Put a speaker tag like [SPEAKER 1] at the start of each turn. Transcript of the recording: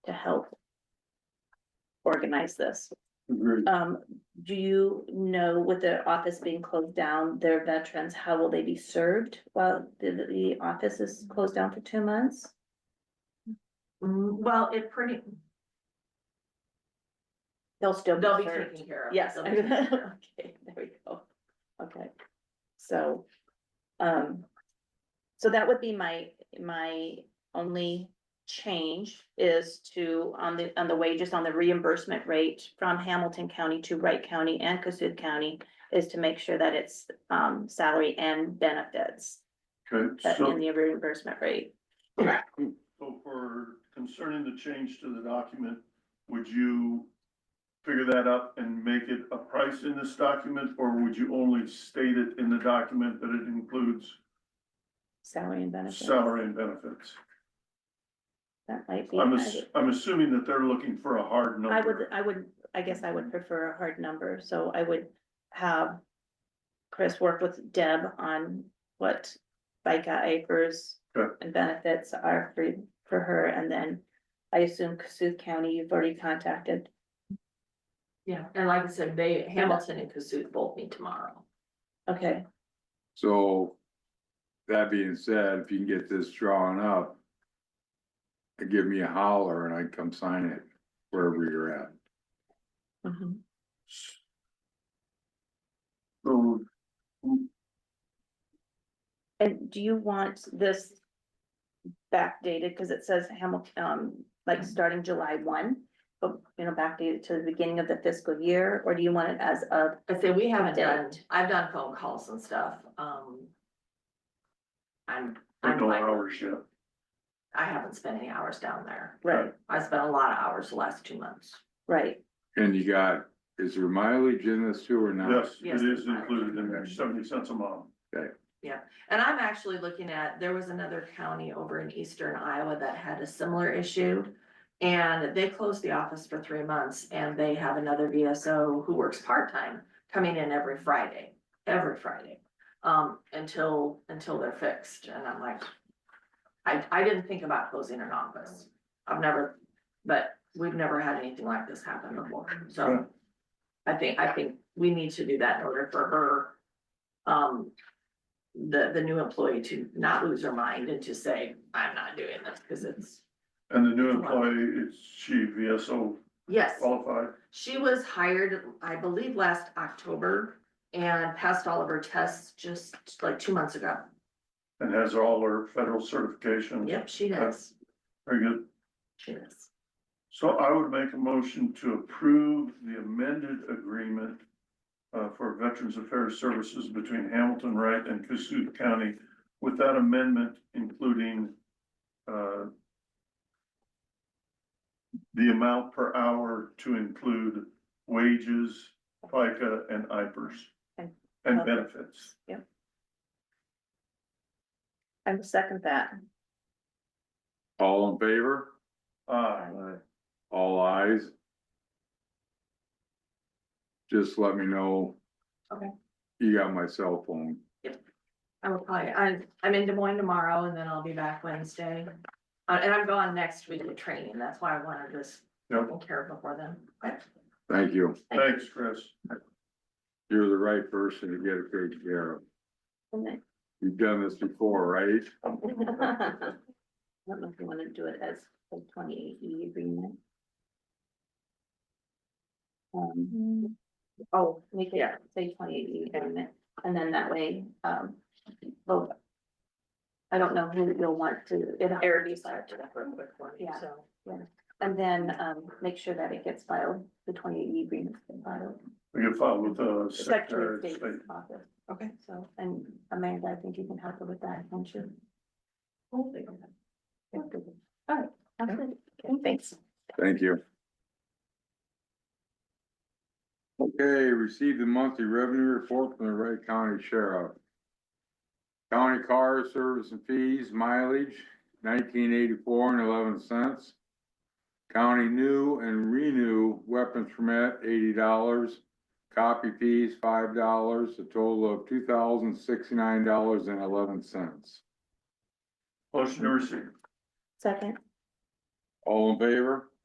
[SPEAKER 1] to help organize this.
[SPEAKER 2] Agreed.
[SPEAKER 1] Um, do you know with the office being closed down, their veterans, how will they be served while the, the office is closed down for two months?
[SPEAKER 3] Mm, Well, it pretty,
[SPEAKER 1] They'll still be
[SPEAKER 3] they'll be
[SPEAKER 1] served.
[SPEAKER 3] taken care of.
[SPEAKER 1] Yes,
[SPEAKER 3] They'll
[SPEAKER 1] I-
[SPEAKER 3] be taken care of.
[SPEAKER 1] okay, there we go. Okay, so, um, so that would be my, my only change is to, on the, on the wages, on the reimbursement rate from Hamilton County to Wright County and Cassuth County is to make sure that it's, um, salary and benefits
[SPEAKER 2] Okay,
[SPEAKER 1] that in
[SPEAKER 2] so,
[SPEAKER 1] the reimbursement rate.
[SPEAKER 2] so for concerning the change to the document, would you figure that up and make it a price in this document, or would you only state it in the document that it includes
[SPEAKER 1] Salary and benefits.
[SPEAKER 2] salary and benefits?
[SPEAKER 1] That might be.
[SPEAKER 2] I'm, ass- I'm assuming that they're looking for a hard number.
[SPEAKER 1] I would, I would, I guess I would prefer a hard number, so I would have Chris work with Deb on what FICA acres
[SPEAKER 2] Sure.
[SPEAKER 1] and benefits are for, for her, and then I assume Cassuth County, you've already contacted.
[SPEAKER 3] Yeah, and like I said, they, Hamilton and Cassuth both meet tomorrow.
[SPEAKER 1] Okay,
[SPEAKER 4] So, that being said, if you can get this drawn up. Give me a holler and I'd come sign it wherever you're at.
[SPEAKER 1] Mm-hmm.
[SPEAKER 2] So,
[SPEAKER 1] and do you want this backdated, cause it says Hamilton, um, like starting July one? But, you know, backdated to the beginning of the fiscal year, or do you want it as of
[SPEAKER 3] I say, we haven't done,
[SPEAKER 1] Date.
[SPEAKER 3] I've done phone calls and stuff, um. I'm,
[SPEAKER 2] I
[SPEAKER 3] I'm
[SPEAKER 2] know
[SPEAKER 3] like,
[SPEAKER 2] hours yet.
[SPEAKER 3] I haven't spent any hours down there.
[SPEAKER 1] Right,
[SPEAKER 3] I spent a lot of hours the last two months.
[SPEAKER 1] right,
[SPEAKER 4] And you got, is there mileage in this too or not?
[SPEAKER 2] Yes,
[SPEAKER 3] Yes,
[SPEAKER 2] it is
[SPEAKER 3] it's fine.
[SPEAKER 2] included in there, seventy cents a mile.
[SPEAKER 3] And I'm actually looking at, there was another county over in eastern Iowa that had a similar issue. And they closed the office for three months and they have another VSO who works part-time coming in every Friday, every Friday. Um, until, until they're fixed. And I'm like, I, I didn't think about closing an office. I've never, but we've never had anything like this happen before, so. I think, I think we need to do that in order for her, um, the, the new employee to not lose her mind and to say, I'm not doing this, because it's,
[SPEAKER 2] And the new employee, is she VSO
[SPEAKER 3] yes.
[SPEAKER 2] qualified?
[SPEAKER 3] She was hired, I believe, last October and passed all of her tests just like two months ago.
[SPEAKER 2] And has all her federal certifications.
[SPEAKER 3] Yep, she does,
[SPEAKER 2] Very good.
[SPEAKER 3] she does.
[SPEAKER 2] So I would make a motion to approve the amended agreement uh, for Veterans Affairs Services between Hamilton Wright and Cassuth County with that amendment including uh, the amount per hour to include wages, FICA and IPERS
[SPEAKER 1] And-
[SPEAKER 2] and benefits.
[SPEAKER 1] I will second that.
[SPEAKER 4] All in favor?
[SPEAKER 2] Aye.
[SPEAKER 4] All eyes. Just let me know.
[SPEAKER 3] Okay.
[SPEAKER 4] You got my cell phone.
[SPEAKER 3] I will probably, I'm, I'm in Des Moines tomorrow and then I'll be back Wednesday. Uh, and I'm gone next week to training, that's why I wanted this
[SPEAKER 2] Yep.
[SPEAKER 3] taken care of before then. But
[SPEAKER 4] Thank you.
[SPEAKER 2] Thanks, Chris.
[SPEAKER 4] You're the right person to get it taken care of.
[SPEAKER 1] And then-
[SPEAKER 4] You've done this before, right?
[SPEAKER 1] I don't know if you wanna do it as a twenty-eight E agreement. Um, oh, make it,
[SPEAKER 3] Yeah.
[SPEAKER 1] say twenty-eight E agreement, and then that way, um, both. I don't know who you'll want to, it,
[SPEAKER 3] Eric decided that real quick for me,
[SPEAKER 1] Yeah.
[SPEAKER 3] so.
[SPEAKER 1] and then, um, make sure that it gets filed, the twenty-eight E agreement gets filed.
[SPEAKER 2] We can file with the
[SPEAKER 1] Secretary of
[SPEAKER 2] Secretary of State.
[SPEAKER 1] State's office. Okay. So, and Amanda, I think you can help her with that, don't you? Hopefully. Alright, absolutely, thanks.
[SPEAKER 4] Thank you. Okay, received the monthly revenue report from the Wright County Sheriff. County car service and fees mileage nineteen eighty-four and eleven cents. County new and renew weapons permit eighty dollars. Copy fees five dollars, a total of two thousand sixty-nine dollars and eleven cents.
[SPEAKER 2] Motion to receive.
[SPEAKER 1] Second,
[SPEAKER 4] All in favor?